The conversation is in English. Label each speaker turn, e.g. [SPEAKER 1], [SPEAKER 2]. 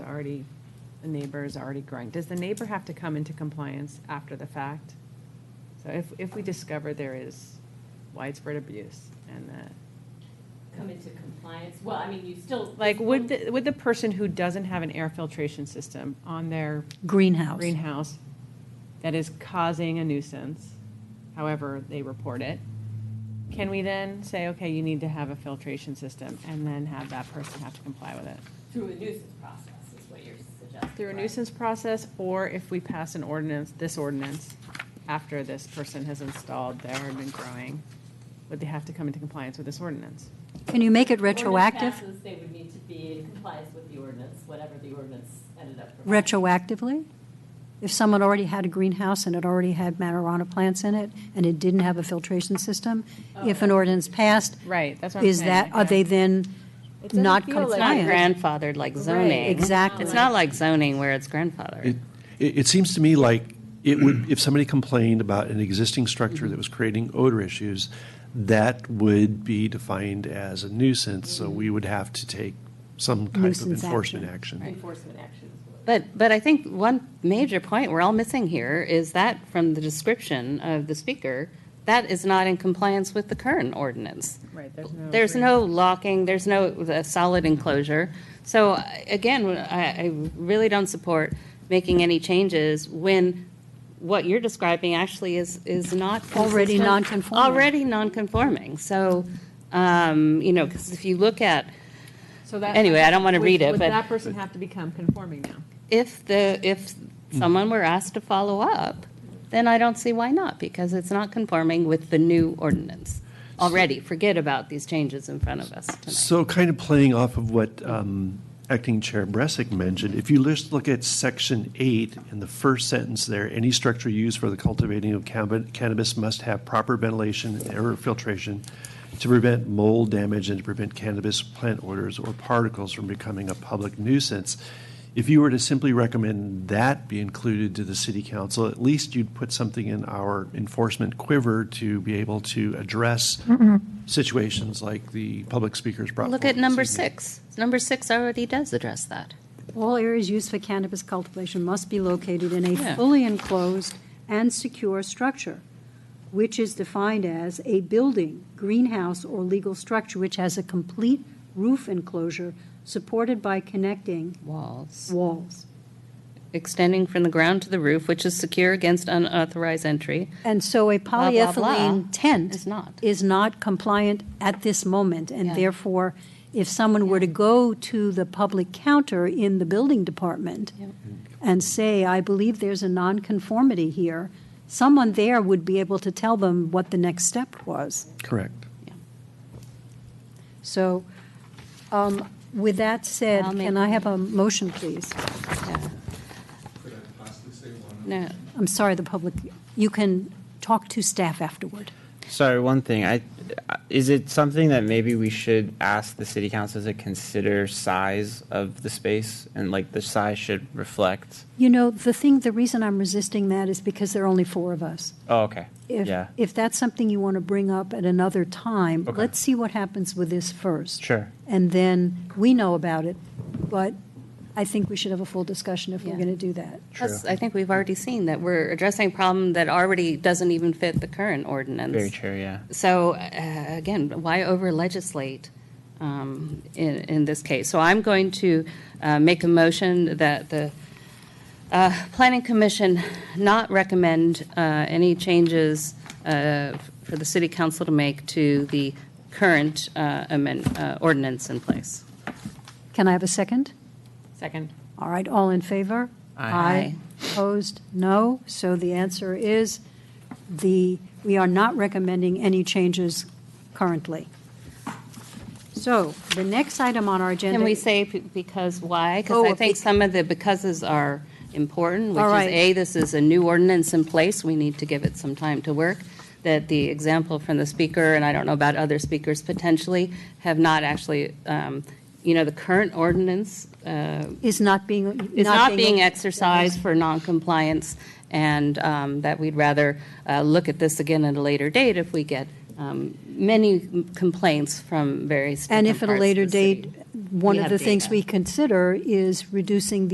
[SPEAKER 1] already, the neighbor is already growing. Does the neighbor have to come into compliance after the fact? So if, if we discover there is widespread abuse and that,
[SPEAKER 2] come into compliance, well, I mean, you still.
[SPEAKER 1] like, would, the- would the person who doesn't have an air filtration system on their
[SPEAKER 3] Greenhouse.
[SPEAKER 1] greenhouse that is causing a nuisance, however they report it, can we then say, okay, you need to have a filtration system and then have that person have to comply with it?
[SPEAKER 2] Through a nuisance process is what you're suggesting.
[SPEAKER 1] Through a
[SPEAKER 2] right?
[SPEAKER 1] nuisance process, or if we pass an ordinance, this ordinance, after this person has installed there and been growing, would they have to come into compliance with this ordinance?
[SPEAKER 3] Can you make it
[SPEAKER 2] Ordinance
[SPEAKER 3] retroactive,
[SPEAKER 2] passes, They would need to be in compliance with the ordinance, whatever the ordinance ended up. providing.
[SPEAKER 3] retroactively? If someone already had a greenhouse and it already had marijuana plants in it, and it didn't have a filtration system, if an ordinance passed,
[SPEAKER 1] Right, that's what I'm saying.
[SPEAKER 3] is that, are they then
[SPEAKER 1] doesn't
[SPEAKER 3] not
[SPEAKER 1] feel like-
[SPEAKER 4] It's not
[SPEAKER 3] compliant?
[SPEAKER 4] grandfathered like
[SPEAKER 1] Right,
[SPEAKER 4] zoning.
[SPEAKER 3] exactly.
[SPEAKER 4] It's not like zoning where it's
[SPEAKER 5] It,
[SPEAKER 4] grandfathered.
[SPEAKER 5] it it seems to me like it would, if somebody complained about an existing structure that was creating odor issues, that would be defined as a nuisance, so we would have to take some type of
[SPEAKER 3] Nuisance
[SPEAKER 5] enforcement
[SPEAKER 3] action.
[SPEAKER 5] action.
[SPEAKER 2] Enforcement actions. would.
[SPEAKER 4] But, but I think one major point we're all missing here is that from the description of the speaker, that is not in compliance with the current ordinance.
[SPEAKER 1] Right, there's
[SPEAKER 3] Oh,
[SPEAKER 1] no.
[SPEAKER 4] There's no locking, there's no uh, solid enclosure. So uh, again, I, I really don't support making any changes when what you're describing actually is, is not
[SPEAKER 3] Already
[SPEAKER 4] consistent-
[SPEAKER 3] non-conforming.
[SPEAKER 4] Already non-conforming. So, um, you know, because if you look at
[SPEAKER 1] So that-
[SPEAKER 4] Anyway, I don't wanna read it,
[SPEAKER 1] Would-
[SPEAKER 4] but-
[SPEAKER 1] Would that person have to become conforming now?
[SPEAKER 4] if the, if someone were asked to follow up, then I don't see why not, because it's not conforming with the new ordinance already. Forget about these changes in front of us tonight.
[SPEAKER 5] So kind of playing off of what um, Acting Chair Bresic mentioned, if you just look at section eight in the first sentence there, any structure used for the cultivating of cannab- cannabis must have proper ventilation and air filtration to prevent mold damage and to prevent cannabis plant odors or particles from becoming a public nuisance. If you were to simply recommend that be included to the city council, at least you'd put something in our enforcement quiver to be able to address situations like the public speakers brought
[SPEAKER 4] Look
[SPEAKER 5] forward
[SPEAKER 4] at number
[SPEAKER 5] this evening.
[SPEAKER 4] six. Number six already does address that.
[SPEAKER 3] All areas used for cannabis cultivation must be located in a
[SPEAKER 4] Yeah.
[SPEAKER 3] fully enclosed and secure structure, which is defined as a building, greenhouse, or legal structure which has a complete roof enclosure supported by connecting
[SPEAKER 4] Walls.
[SPEAKER 3] walls.
[SPEAKER 4] Extending from the ground to the roof, which is secure against unauthorized entry.
[SPEAKER 3] And so a
[SPEAKER 4] blah, blah, blah,
[SPEAKER 3] polyethylene tent
[SPEAKER 4] Is not.
[SPEAKER 3] is not compliant at this moment, and
[SPEAKER 4] Yeah.
[SPEAKER 3] therefore, if someone were to go to the public counter in the building department
[SPEAKER 4] Yep.
[SPEAKER 3] and say, I believe there's a nonconformity here, someone there would be able to tell them what the next step was.
[SPEAKER 5] Correct.
[SPEAKER 3] So, um, with that said,
[SPEAKER 4] I'll make-
[SPEAKER 3] can I have a motion, please?
[SPEAKER 4] Yeah.
[SPEAKER 6] Could I possibly say one?
[SPEAKER 4] No,
[SPEAKER 3] I'm sorry, the public, you can talk to staff afterward.
[SPEAKER 7] Sorry, one thing. I, uh, is it something that maybe we should ask the city council to consider size of the space and like the size should reflect?
[SPEAKER 3] You know, the thing, the reason I'm resisting that is because there are only four of us.
[SPEAKER 7] Oh, okay.
[SPEAKER 3] If,
[SPEAKER 7] yeah.
[SPEAKER 3] if that's something you want to bring up at another time,
[SPEAKER 7] Okay.
[SPEAKER 3] let's see what happens with this first.
[SPEAKER 7] Sure.
[SPEAKER 3] And then we know about it, but I think we should have a full discussion if we're
[SPEAKER 4] Yeah.
[SPEAKER 3] going to do that.
[SPEAKER 4] plus, I think we've already seen that we're addressing a problem that already doesn't even fit the current ordinance.
[SPEAKER 7] Very true. Yeah.
[SPEAKER 4] So, uh, again, why over legislate um, in, in this case? So I'm going to uh, make a motion that the uh, Planning Commission not recommend uh, any changes uh, for the City Council to make to the current uh, amend- uh, ordinance in place.
[SPEAKER 3] Can I have a second?
[SPEAKER 1] Second.
[SPEAKER 3] All right, all in favor?
[SPEAKER 4] Aye.
[SPEAKER 3] Opposed? No. So the answer is the, we are not recommending any changes currently. So the next item on our agenda.
[SPEAKER 4] Can we say p- because why?
[SPEAKER 3] Oh,
[SPEAKER 4] Because I think
[SPEAKER 3] bec-
[SPEAKER 4] some of the becauses are important, which
[SPEAKER 3] All
[SPEAKER 4] is,
[SPEAKER 3] right.
[SPEAKER 4] A, this is a new ordinance in place, we need to give it some time to work, that the example from the speaker, and I don't know about other speakers potentially, have not actually, um, you know, the current ordinance uh,
[SPEAKER 3] Is not being.
[SPEAKER 4] is not being exercised for noncompliance, and um, that we'd rather uh, look at this again at a later date if we get um, many complaints from various
[SPEAKER 3] And
[SPEAKER 4] different
[SPEAKER 3] if at a
[SPEAKER 4] parts of
[SPEAKER 3] later
[SPEAKER 4] the city.
[SPEAKER 3] date, one
[SPEAKER 4] We
[SPEAKER 3] of
[SPEAKER 4] have
[SPEAKER 3] the things
[SPEAKER 4] data.
[SPEAKER 3] we consider is reducing the.